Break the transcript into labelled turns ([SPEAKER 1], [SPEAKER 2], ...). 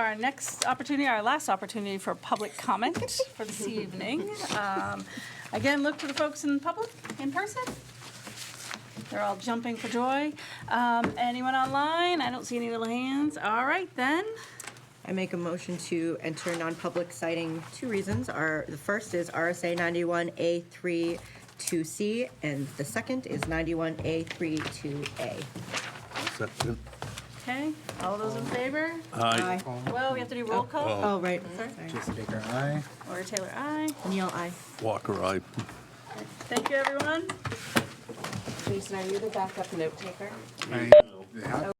[SPEAKER 1] our next opportunity, our last opportunity for public comment for this evening. Um, Again, look to the folks in public, in person. They're all jumping for joy. Um, Anyone online? I don't see any little hands. All right, then.
[SPEAKER 2] I make a motion to enter non-public citing two reasons. Our, the first is RSA 91A32C, and the second is 91A32A.
[SPEAKER 3] Second.
[SPEAKER 1] Okay, all those in favor?
[SPEAKER 3] Aye.
[SPEAKER 1] Well, we have to do roll call.
[SPEAKER 2] Oh, right.
[SPEAKER 4] Jason Baker, aye.
[SPEAKER 1] Or Taylor, aye.
[SPEAKER 2] Neil, I.
[SPEAKER 3] Walker, aye.
[SPEAKER 1] Thank you, everyone.
[SPEAKER 5] Jason, are you the backup note taker?
[SPEAKER 4] Yeah.